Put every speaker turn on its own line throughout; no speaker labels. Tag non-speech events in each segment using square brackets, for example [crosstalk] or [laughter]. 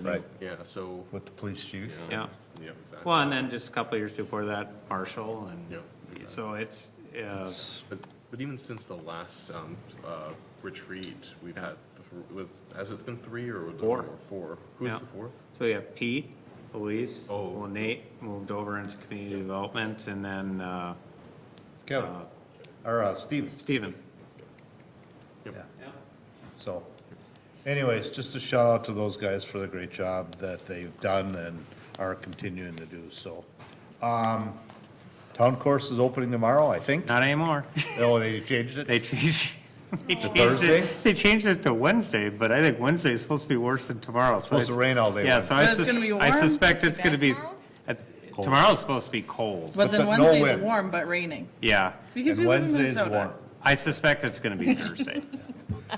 Right.
Yeah, so,
With the police chief?
Yeah.
yeah, exactly.
Well, and then just a couple of years before that, Marshall,
Yeah,
and so it's, uh,
But, but even since the last, um, uh, retreat, we've had, th- was, has it been three or? was it
Four.
more? Four. Who's
Yeah.
the fourth?
so we have Pete, police.
Oh.
Well, Nate moved over into community development, and then uh,
Kevin, or uh, Steven,
Stephen.
yeah. So anyways, just a shout out to those guys for the great job that they've done and are continuing to do, so. Um, Town course is opening tomorrow, I think.
Not anymore. [laughs]
Oh, they changed it?
They changed, they changed
Thursday?
it, they changed it to Wednesday, but I think Wednesday is supposed to be worse than tomorrow. so I
Supposed to
s-
rain all day
Yeah, so I
Wednesday. So it's
sus-
gonna be
I
warm?
suspect it's
Supposed to
gonna
be
be,
bad
at- tomorrow's supposed to be cold,
But then
But the- no
Wednesday's
wind.
warm but raining,
yeah.
because we
And
live in
Wednesday's
Minnesota.
warm.
I suspect it's gonna
[laughs]
be Thursday.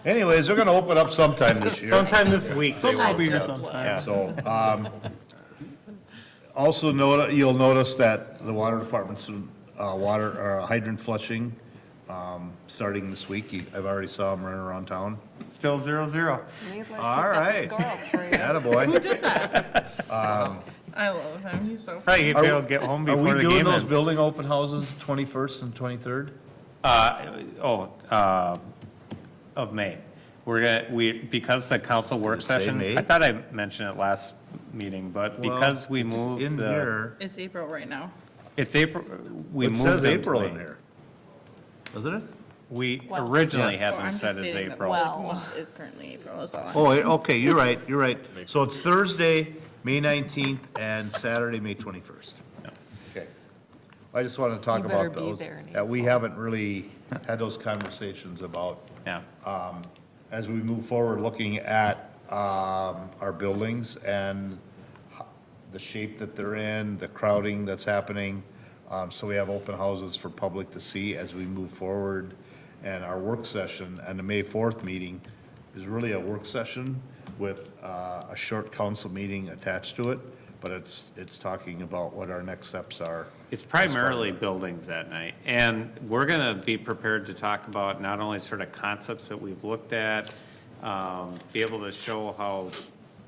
Anyways, they're gonna open up sometime
[laughs]
this year.
Sometime this week. they will.
be here sometime.
Yeah.
Oh, So, um, also note, you'll notice that the water department's, uh, water, or hydrant flushing, um, starting this week. You- I've already saw them running around town.
Still zero, zero.
All right.
[laughs]
[laughs]
Who
Attaboy.
did that?
[laughs]
Um,
Um,
I love him, he's so funny.
Probably
Are we-
he'll get home
Are we
before the
doing
game
those
ends.
building open houses twenty-first and twenty-third?
Uh, oh, uh, of May. We're gonna, we, because the council work
Did it say
session,
May?
I thought I mentioned it last meeting, but because we
In
moved the,
here,
It's April right now.
it's April, we
it
moved.
says
them to
April in
May.
here. Doesn't it?
We
Well-
originally
Yes.
had
Well,
them
I'm
set
just
as
stating that
April.
the
Well.
month is currently April, that's all.
Oh, it- okay, you're right, you're right. So it's Thursday, May 19th, and Saturday, May 21st. Okay. I just wanted to talk
You better
about
be
those,
there in
that we haven't really had those conversations about,
Yeah,
Uh, as we move forward, looking at um, our buildings and ho- the shape that they're in, the crowding that's happening. Um, So we have open houses for public to see as we move forward. And our work session and the May 4th meeting is really a work session with uh, a short council meeting attached to it, but it's, it's talking about what our next steps are.
it's primarily buildings that night. And we're gonna be prepared to talk about not only sort of concepts that we've looked at, um, be able to show how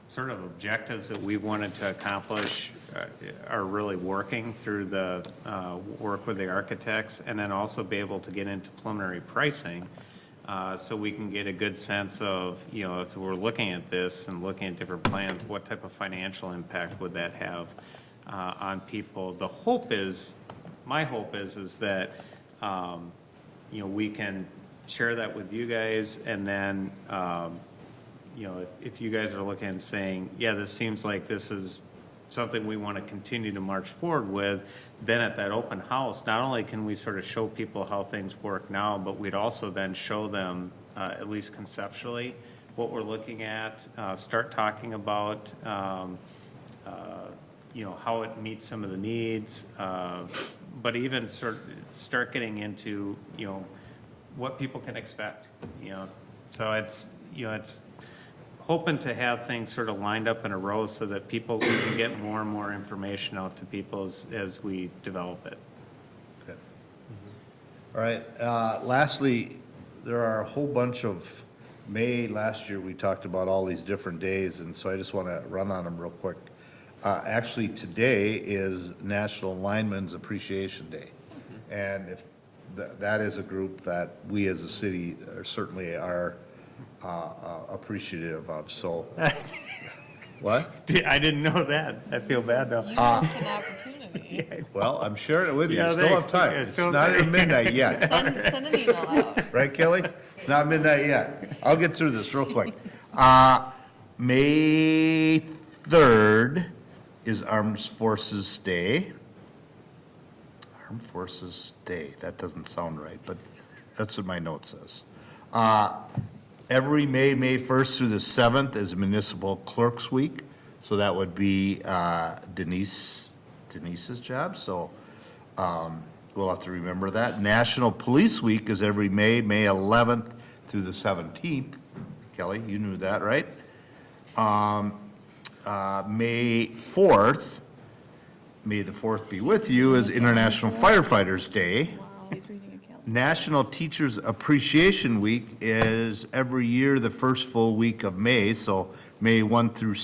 sort of objectives that we wanted to accomplish uh, are really working through the, uh, work with the architects, and then also be able to get into preliminary pricing, uh, so we can get a good sense of, you know, if we're looking at this and looking at different plans, what type of financial impact would that have uh, on people? The hope is, my hope is, is that, um, you know, we can share that with you guys, and then, um, you know, if- if you guys are looking and saying, yeah, this seems like this is something we want to continue to march forward with, then at that open house, not only can we sort of show people how things work now, but we'd also then show them, uh, at least conceptually, what we're looking at, uh, start talking about, um, uh, you know, how it meets some of the needs, uh, but even sort, start getting into, you know, what people can expect, you know? So it's, you know, it's hoping to have things sort of lined up in a row so that people, we can get more and more information out to people as, as we develop it. [laughs]
Good. All right, uh, lastly, there are a whole bunch of, May last year, we talked about all these different days, and so I just want to run on them real quick. Uh, Actually, today is National Lineman's Appreciation Day. And if, tha- that is a group that we as a city are certainly are uh, uh, appreciative
[laughs]
of, so. What?
I didn't know that. I feel bad now.
missed an opportunity.
Well, I'm sharing it with you.
Yeah,
You still have
thanks.
time.
Yeah,
It's
still-
not even midnight yet.
Send, send an email out.
Right, Kelly? It's not midnight yet. I'll get through this real quick. Uh, May 3rd is Armed Forces Day. Armed Forces Day, that doesn't sound right, but that's what my note says. Uh, Every May, May 1st through the 7th is Municipal Clerks Week, so that would be uh, Denise, Denise's job, so um, we'll have to remember that. National Police Week is every May, May 11th through the 17th. Kelly, you knew that, right? Um, Uh, May 4th, May the 4th be with you, is International Firefighters Day.
He's reading a calendar.
National Teachers Appreciation Week is every year the first full week of May, so May 1 through